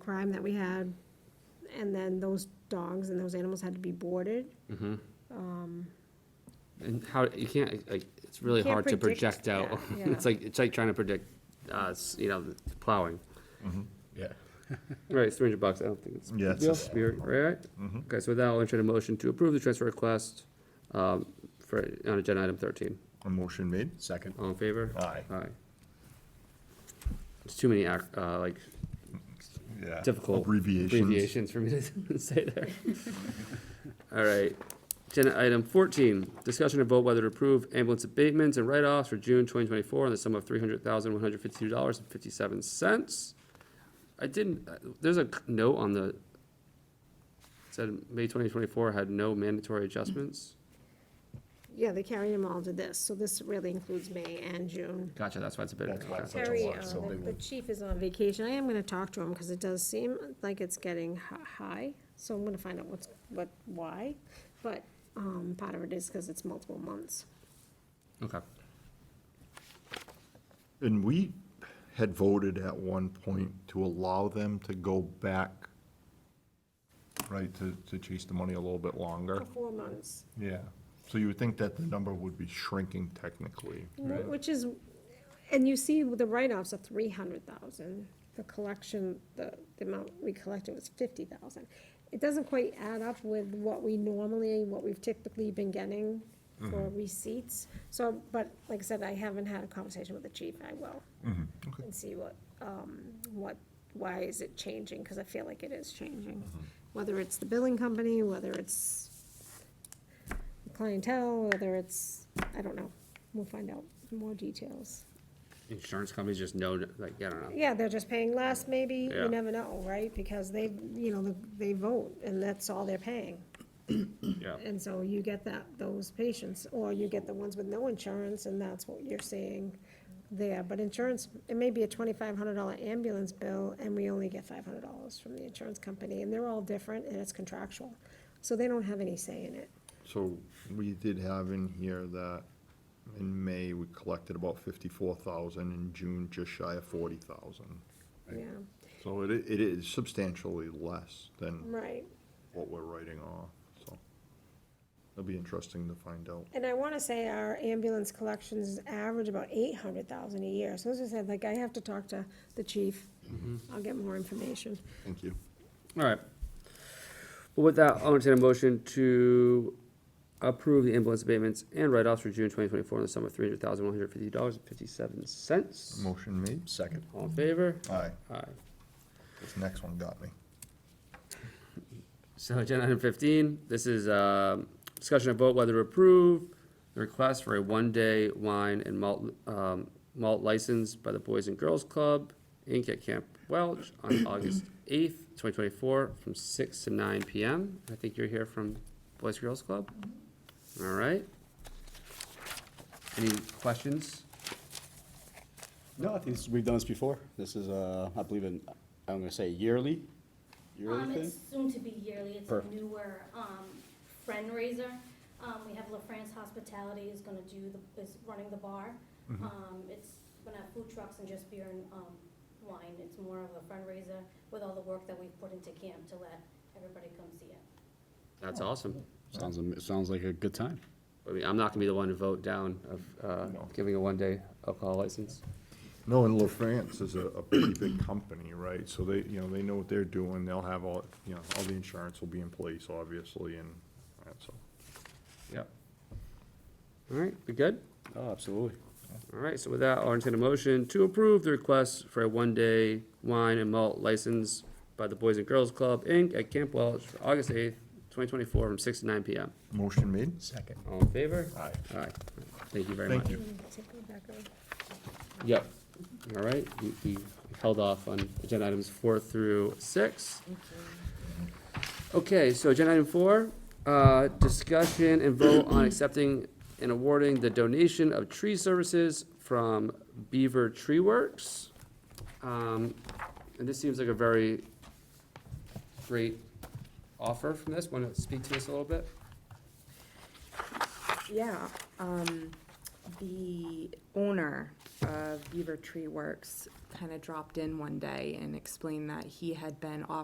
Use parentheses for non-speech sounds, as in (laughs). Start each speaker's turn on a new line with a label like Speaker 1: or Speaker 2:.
Speaker 1: crime that we had, and then those dogs and those animals had to be boarded.
Speaker 2: And how, you can't, like, it's really
Speaker 1: can't
Speaker 2: hard to
Speaker 1: predict
Speaker 2: project out. (laughs)
Speaker 1: that, yeah.
Speaker 2: It's like, it's like trying to predict, uh, s- you know, the plowing.
Speaker 3: Yeah.
Speaker 2: Right, it's three hundred bucks, I don't think it's. a big
Speaker 3: Yeah, it's
Speaker 2: deal.
Speaker 3: just- Mm-hmm.
Speaker 2: You're- right? Okay, so with that, I'll entertain a motion to approve the transfer request, um, for, on agenda item thirteen.
Speaker 3: A motion made?
Speaker 4: Second.
Speaker 2: All in favor?
Speaker 3: Aye.
Speaker 2: Aye. It's too many ac uh, like
Speaker 3: Yeah.
Speaker 2: difficult.
Speaker 3: Abbreviations.
Speaker 2: abbreviations for me to (laughs) say there. All right, agenda item fourteen, discussion and vote whether to approve ambulance abatements and write-offs for June twenty twenty-four in the sum of three hundred thousand, one hundred fifty-two dollars and fifty-seven cents. I didn't, uh, there's a c- note on the, said May twenty twenty-four had no mandatory adjustments.
Speaker 1: Yeah, they carried them all to this, so this really includes May and June.
Speaker 2: Gotcha, that's why it's a bit.
Speaker 3: That's why
Speaker 2: okay.
Speaker 3: it's Such a
Speaker 1: Terry,
Speaker 3: lot,
Speaker 1: uh,
Speaker 3: so
Speaker 1: the-
Speaker 3: they
Speaker 1: the
Speaker 3: will-
Speaker 1: chief is on vacation, I am gonna talk to him, because it does seem like it's getting hi- high, so I'm gonna find out what's, what, why, but, um, part of it is because it's multiple months.
Speaker 2: Okay,
Speaker 3: And we had voted at one point to allow them to go back, right, to, to chase the money a little bit longer.
Speaker 1: For four months,
Speaker 3: Yeah. So you would think that the number would be shrinking technically.
Speaker 1: wh- which is, and you see the write-offs of three hundred thousand, the collection, the, the amount we collected was fifty thousand. It doesn't quite add up with what we normally, what we've typically been getting for receipts, so, but like I said, I haven't had a conversation with the chief, I will. And see what, um, what, why is it changing, cause I feel like it is changing, whether it's the billing company, whether it's clientele, whether it's, I don't know. We'll find out more details.
Speaker 2: insurance companies just know, like, I don't know.
Speaker 1: Yeah, they're just paying less, maybe,
Speaker 2: Yeah.
Speaker 1: you never know, right? Because they, you know, they vote, and that's all they're paying.
Speaker 2: Yeah.
Speaker 1: And so you get that, those patients, or you get the ones with no insurance, and that's what you're seeing there. But insurance, it may be a twenty-five hundred dollar ambulance bill, and we only get five hundred dollars from the insurance company, and they're all different, and it's contractual. So they don't have any say in it.
Speaker 3: So we did have in here that in May, we collected about fifty-four thousand, in June, just shy of forty thousand.
Speaker 1: Yeah,
Speaker 3: So it, i- it is substantially less than
Speaker 1: right.
Speaker 3: what we're writing off, so. It'll be interesting to find out.
Speaker 1: And I wanna say our ambulance collections average about eight hundred thousand a year, so as I said, like, I have to talk to the chief. I'll get more information.
Speaker 3: Thank you.
Speaker 2: All right. Well, with that, I'll entertain a motion to approve the ambulance abatements and write-offs for June twenty twenty-four in the sum of three hundred thousand, one hundred fifty dollars and fifty-seven cents.
Speaker 3: Motion made.
Speaker 4: Second.
Speaker 2: All in favor?
Speaker 3: Aye,
Speaker 2: Aye.
Speaker 3: this next one got me.
Speaker 2: So agenda item fifteen, this is, um discussion of vote whether to approve the request for a one-day wine and malt, um, malt license by the Boys and Girls Club, Inc. at Camp Welch on August eighth, twenty twenty-four, from six to nine PM. I think you're here from Boys and Girls Club? All right. Any questions?
Speaker 4: No, I think this- we've done this before. This is, uh, I believe in, I'm gonna say yearly, yearly
Speaker 5: Um,
Speaker 4: thing?
Speaker 5: it's soon to be yearly, it's a
Speaker 4: Perfect.
Speaker 5: newer, um, fundraiser. Um, we have La France Hospitality is gonna do the, is running the bar.
Speaker 4: Mm-hmm.
Speaker 5: Um, it's gonna have food trucks and just beer and, um, wine, it's more of a fundraiser with all the work that we've put into camp to let everybody come see it.
Speaker 2: That's awesome.
Speaker 4: Sounds, am- it sounds like a good time.
Speaker 2: I mean, I'm not gonna be the one to vote down of, uh,
Speaker 3: No.
Speaker 2: giving a one-day alcohol license.
Speaker 3: No, and La France is a, a pretty big company, right? So they, you know, they know what they're doing, they'll have all, you know, all the insurance will be in place, obviously, and, all right, so.
Speaker 2: Yep. All right, we good?
Speaker 4: Oh, absolutely.
Speaker 2: All right, so with that, I'll entertain a motion to approve the request for a one-day wine and malt license by the Boys and Girls Club, Inc. at Camp Welch for August eighth, twenty twenty-four, from six to nine PM.
Speaker 3: Motion made?
Speaker 4: Second.
Speaker 2: All in favor?
Speaker 3: Aye.
Speaker 2: Aye. Thank you very much.
Speaker 3: Thank you.
Speaker 1: Take it back over.
Speaker 2: Yep. All right, we, we held off on agenda items four through six. Okay, so agenda item four, uh, discussion and vote on accepting and awarding the donation of tree services from Beaver Tree Works. Um, and this seems like a very great offer from this. Want to speak to us a little bit?
Speaker 6: Yeah, um, the owner uh, Beaver Tree Works kind of dropped in one day and explained that he had been off.